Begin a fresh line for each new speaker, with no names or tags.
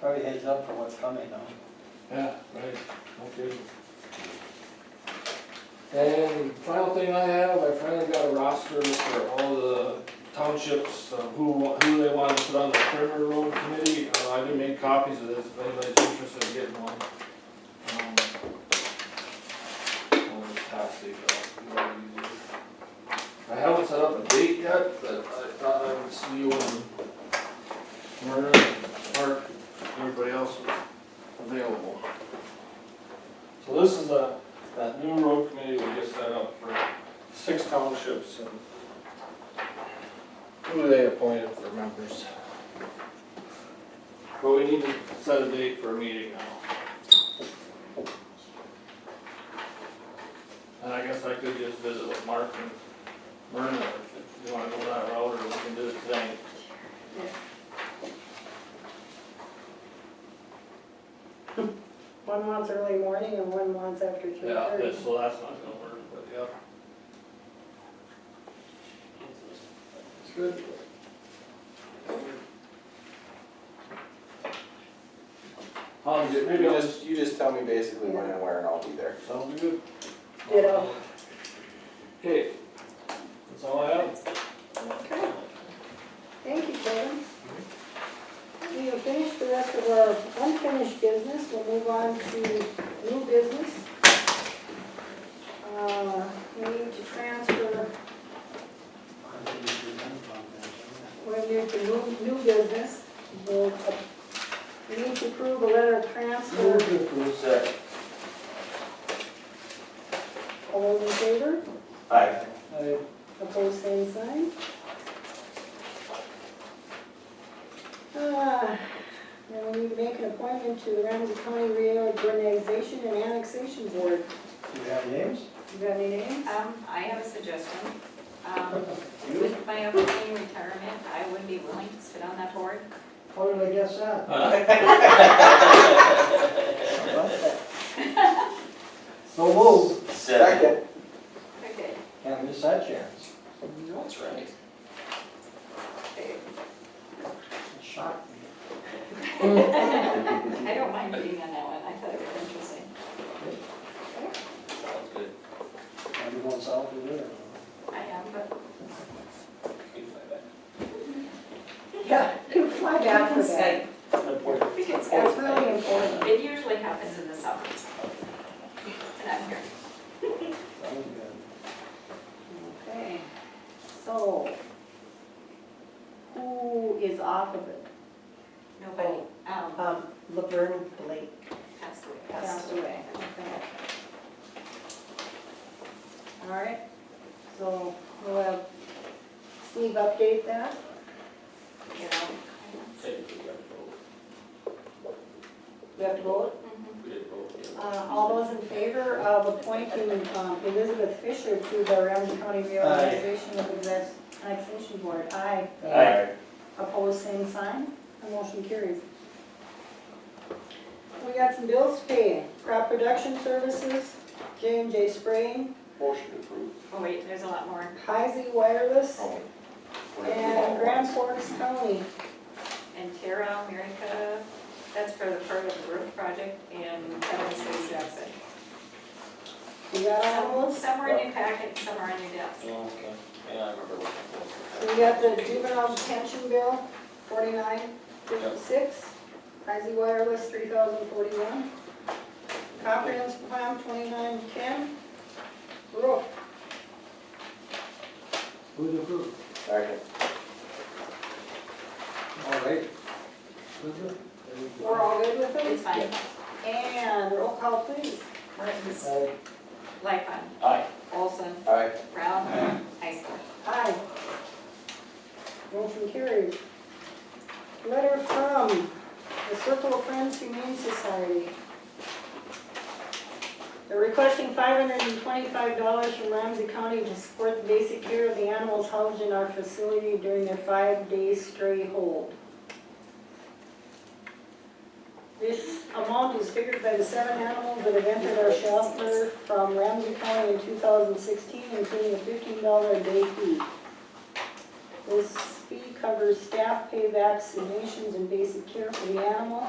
Probably heads up for what's coming though.
Yeah, right, okay. And final thing I have, I finally got a roster for all the townships, of who, wa- who they want to put on the perimeter road committee. Uh, I didn't make copies of this, if anybody's interested in getting one. Um, I'll just pass these out, it'll be easier. I haven't set up a date yet, but I thought I would see you in Myrna, Park, everybody else was available. So this is a, that new road committee we just set up for six townships and who they appointed for members. But we need to set a date for a meeting now. And I guess I could just visit with Mark and Myrna if you wanna go that route or we can do it today.
One wants early morning and one wants after three
Yeah,
thirty.
that's- so that's not gonna work, but yeah. It's good. I'll just,
You ju-
maybe
You
I'll
just, you just tell me basically when and where and I'll be there.
that'll be good.
Ditto.
Okay, that's all I have.
Okay. Thank you, Kevin. We have finished the rest of our unfinished business, we'll move on to new business. Uh, we need to transfer,
I think we should run from that,
we're new to new, new business. We'll, uh, We need to approve a letter of transfer,
Second.
all those in favor,
Aye.
yeah. Uh,
opposed, same sign. Uh, Then we need to make an appointment to the Ramsey County Reorganization and Annexation Board.
Do you have names?
You got any names?
Um, I have a suggestion. Um, with my upcoming retirement, I would be willing to sit on that board.
How did I guess that? So move,
Second.
Okay.
can't miss that chance.
That's right.
It shocked me.
I don't mind being on that one, I thought it was interesting.
Sounds good.
Are you going south of there?
I am, but
Yeah, you fly back for that.
Important.
we can
That's
schedule
really important.
it. It usually happens in the summer. And I'm here.
Sounds good.
Okay, so who is off of it?
Nobody, um,
Um, Laverne Blake
passed away.
passed
Passed
away.
away, okay. All right, so we'll have Steve update that.
You know.
We have to vote.
Mhm.
Uh, All those in favor of appointing um, Elizabeth Fisher to the Ramsey County Reorganization of Exex- Annexation Board? Aye.
Aye.
Opposed, same sign. The motion carries. We got some bills to pay. Crop production services, J and J spraying,
Motion approved.
Oh, wait, there's a lot more.
Heisey wireless,
Oh, whatever you
and
want.
Grand Forks County.
And Terra America, that's for the part of the roof project in Kevin City, Jackson.
We got all those?
Some are in your packet, some are on your desk.
Okay, yeah, I remember looking for
We got the juvenile detention bill, forty-nine fifty-six. Heisey wireless, three thousand forty-one. Comprehensive plan, twenty-nine ten. Roof,
Who's approved?
it. Second.
All right. Who's it? There you
we're
go.
all good with
It's
it?
fine.
And roll call please.
Mertens,
Aye.
Lightfun,
Aye.
Olson,
Aye.
Brown, Heisler.
Aye. Motion carries. Letter from the Circle of Friends Humane Society. They're requesting five hundred and twenty-five dollars from Ramsey County to support the basic care of the animals housed in our facility during their five-day stray hold. This amount is figured by the seven animals that have entered our shelter from Ramsey County in 2016, including a $15 a day fee. This fee covers staff pay, vaccinations, and basic care for the animal.